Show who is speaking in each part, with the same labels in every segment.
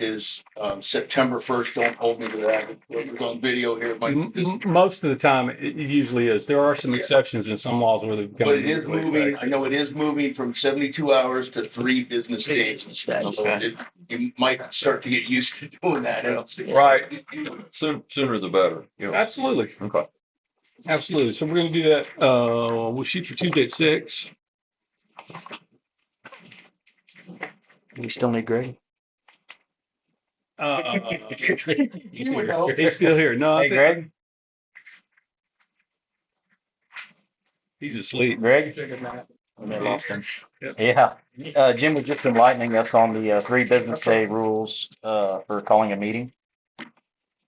Speaker 1: is um, September first. Don't hold me to that. It was on video here. It might
Speaker 2: M-
Speaker 1: be-
Speaker 2: m- Most of the time, it it usually is. There are some
Speaker 1: Yeah.
Speaker 2: exceptions in some laws where they've.
Speaker 1: But it is moving, I know it is moving from seventy-two hours to three business days. So it- You might start to get used to doing that. I don't see-
Speaker 3: Right. Sooner, sooner the better. you know.
Speaker 2: Absolutely.
Speaker 3: Okay.
Speaker 2: Absolutely. So we're gonna do that. Uh, we'll shoot for Tuesday at six.
Speaker 4: We still need Greg.
Speaker 2: Uh,
Speaker 1: You would know.
Speaker 2: he's still here. No, I
Speaker 4: Hey,
Speaker 2: think
Speaker 4: Greg.
Speaker 2: he's asleep.
Speaker 4: Greg.
Speaker 2: I lost him. Yep.
Speaker 4: Yeah. Uh, Jim was just enlightening us on the uh, three business day rules uh, for calling a meeting.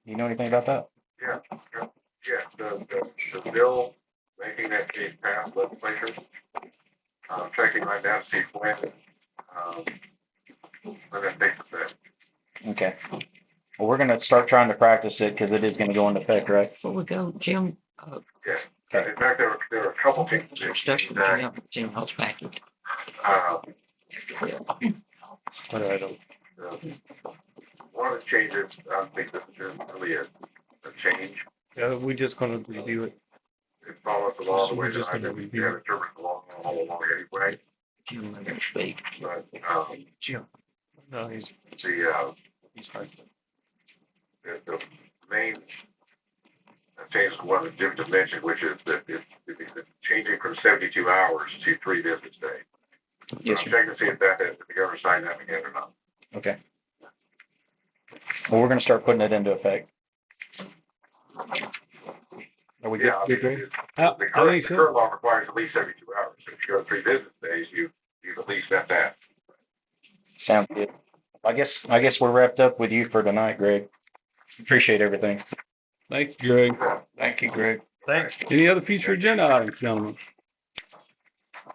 Speaker 4: You know anything about that?
Speaker 5: Yeah, yeah, yeah, the, the, the bill making that case pass legislature. Uh, checking right now, to see when, um, when that takes effect.
Speaker 4: Okay. Well, we're gonna start trying to practice it because it is gonna go into effect, right?
Speaker 6: Before we go, Jim, uh,
Speaker 4: Okay.
Speaker 5: In fact, there were, there were a couple things.
Speaker 6: Mr. Stuckey, we
Speaker 5: that,
Speaker 6: have Jim Hall's package.
Speaker 5: Uh,
Speaker 4: What do I
Speaker 2: um,
Speaker 4: do?
Speaker 5: Uh, One of the changes, I think this is really a, a change.
Speaker 2: Yeah, we're just gonna review it.
Speaker 5: It follows the law the way
Speaker 2: We're just
Speaker 5: that I
Speaker 2: gonna
Speaker 5: have
Speaker 2: review it.
Speaker 5: interpreted the law all along anyway,
Speaker 6: Jim, let him speak.
Speaker 5: but, um,
Speaker 2: Jim. No, he's,
Speaker 5: the, uh,
Speaker 2: he's fine.
Speaker 5: the- the main change is one that Jim just mentioned, which is that it, it- it's changing from seventy-two hours to three business days. So I'm
Speaker 4: Yes, sir.
Speaker 5: checking to see if that, if the governor signed that again or not.
Speaker 4: Okay. Well, we're gonna start putting it into effect. Are we good?
Speaker 5: Yeah, I
Speaker 4: good,
Speaker 5: mean,
Speaker 4: Greg?
Speaker 5: it-
Speaker 2: I
Speaker 5: the
Speaker 2: Uh, I
Speaker 5: current,
Speaker 2: think
Speaker 5: the
Speaker 2: so.
Speaker 5: current law requires at least seventy-two hours. If you go three business days, you, you've at least met that.
Speaker 4: Sounds good. I guess, I guess we're wrapped up with you for tonight, Greg. Appreciate everything.
Speaker 2: Thank you, Greg.
Speaker 4: Thank you, Greg.
Speaker 2: Thanks. Any other future agenda items, gentlemen?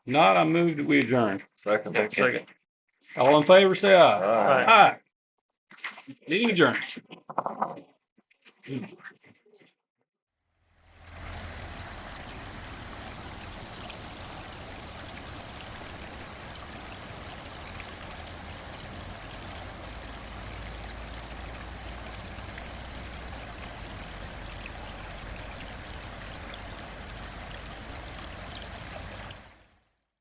Speaker 2: Not, I move that we adjourn.
Speaker 3: Second.
Speaker 2: Second. All in favor, say aye.
Speaker 3: All right.
Speaker 2: Aye. Meeting adjourned.